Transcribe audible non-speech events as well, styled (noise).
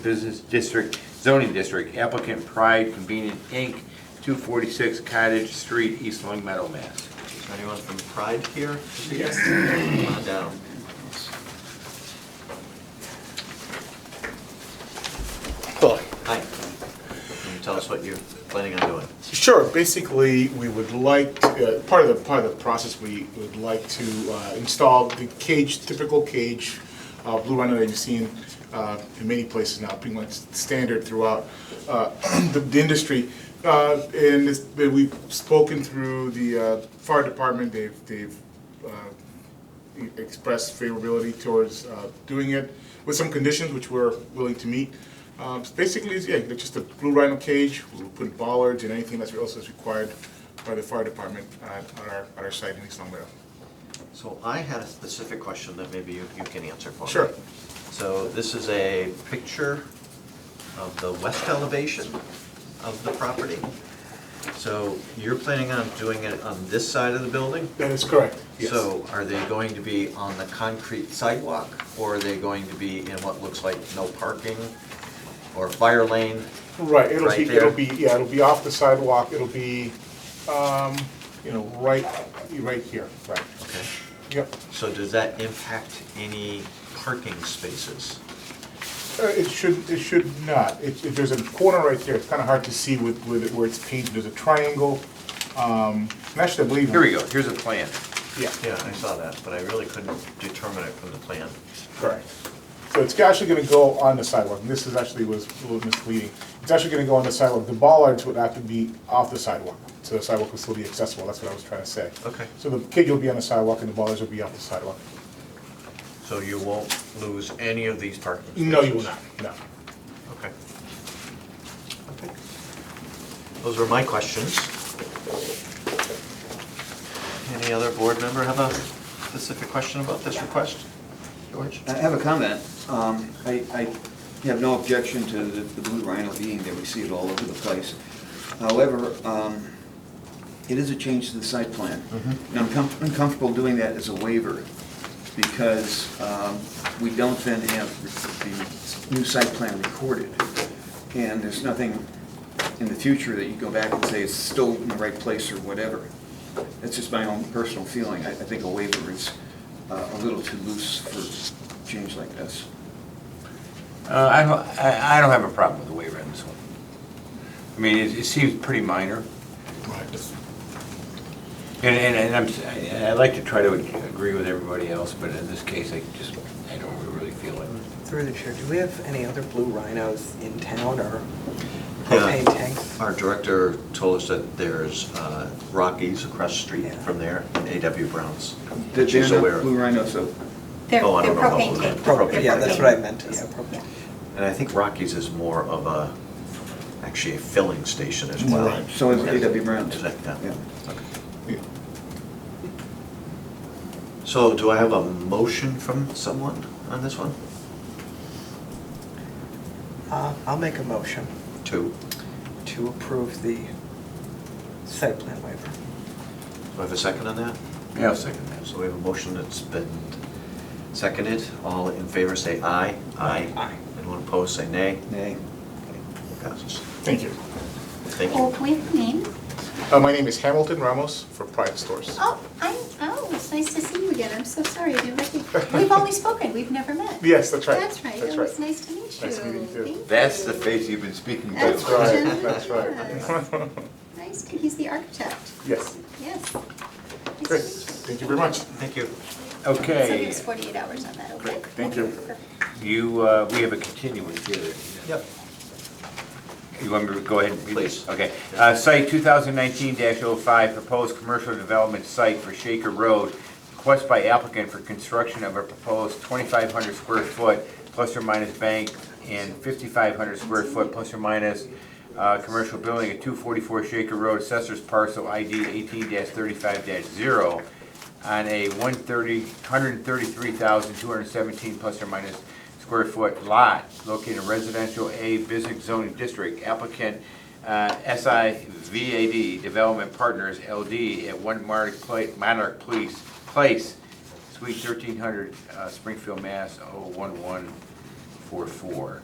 Business District, Zoning District, applicant Pride Convenient Inc., 246 Cottage Street, East Long Meadow, Mass. Is there anyone from Pride here? Yes. Come on down. Well, Hi. Can you tell us what you're planning on doing? Sure, basically, we would like, uh, part of the, part of the process, we would like to uh, install the cage, typical cage, uh, blue rhino that you've seen uh, in many places now, pretty much standard throughout uh, (clears throat) the the industry. Uh, And it's- we've spoken through the uh, fire department, they've, they've uh, expressed favorability towards uh, doing it with some conditions which we're willing to meet. Um, so Basically, it's, yeah, it's just a blue rhino cage, we'll put bollards and anything that's else that's required by the fire department uh, on our, on our site in East Long Meadow. So I had a specific question that maybe you, you can answer for me. Sure. So this is a picture of the west elevation of the property. So you're planning on doing it on this side of the building? That is correct, So are they going to be on the concrete sidewalk, or are they going to be in what looks like no parking or fire lane? Right, it'll Right be, there. it'll be, yeah, it'll be off the sidewalk, it'll be, um, you know, right, right here, right. Okay. Yep, So does that impact any parking spaces? Uh, it should, it should not. It- If there's a corner right there, it's kind of hard to see with, with it where it's painted, there's a triangle. Um, and Actually, I believe. Here we go, here's a plan. Yeah. Yeah, I saw that, but I really couldn't determine it from the plan. Correct. So it's actually gonna go on the sidewalk, and this is actually was a little misleading. It's actually gonna go on the sidewalk, the bollards would have to be off the sidewalk, so the sidewalk will still be accessible, that's what I was trying to say. Okay. So the cage will be on the sidewalk and the bollards will be off the sidewalk. So you won't lose any of these parking spaces? No, you will not, no. Okay. Okay. Those were my questions. Any other board member have a specific question about this request? George? I have a comment. Um, I I have no objection to the the blue rhino being there, we see it all over the place. However, um, it is a change to the site plan. And I'm com- I'm comfortable doing that as a waiver, because um, we don't then have the new site plan recorded. And there's nothing in the future that you go back and say it's still in the right place or whatever. That's just my own personal feeling. I I think a waiver is uh, a little too loose for change like this. Uh, I don't, I I don't have a problem with the waiver on this one. I mean, it it seems pretty minor, and, and and I'm, s- I- I like to try to agree with everybody else, but in this case, I just, I don't really feel it. Through the chair, do we have any other blue rhinos in town or Yeah. propane tanks? Our director told us that there's uh, Rockies across the street from there and A.W. Brown's. They're She's not aware of. Blue Rhino, so They're, Oh, I they're don't know about propane that. tank. Propane, yeah, that's what I meant, yeah, Yeah. propane. And I think Rockies is more of a, actually a filling station as well. Right. so is A.W. Brown's. Is that- yeah. Yeah. Yeah. So do I have a motion from someone on this one? Uh, I'll make a motion Two. to approve the site plan waiver. Do I have a second on that? Yeah, I'll second that. So we have a motion that's been seconded. All in favor say aye. Aye. Anyone opposed say nay. Nay. Okay, Passes. Thank you. Thank Oh, you. can we have a name? Uh, My name is Hamilton Ramos for Pride Stores. Oh, I, oh, it's nice to see you again. I'm so sorry. I never (laughs) did. We've only spoken. We've never met. Yes, that's right. That's right. That's It right. was nice to meet you. Nice meeting you, too. Thank That's you. the face you've been speaking to. That's Right, Jim. That's right. Nice. to- He's the architect. Yes. Yes. Great, Nice to meet thank you very much. Thank you. you. So give Okay, us 48 hours on that, okay? Great, thank you. Perfect. you, uh, we have a continuance here. Yep. You want me to go ahead and read this? Please. Okay. Uh, Site 2019-05, proposed commercial development site for Shaker Road. Request by applicant for construction of a proposed 2,500 square foot plus or minus bank and 5,500 square foot plus or minus uh, commercial building at 244 Shaker Road, Assessor's Parcel ID 18-35-0 on a 130 133,217 plus or minus square foot lot located in residential A business zoning district. Applicant uh, SIVAD Development Partners LD at One Monarch Pla- Monarch Place, Place, oh Suite 1300, uh, Springfield, Mass. 01144.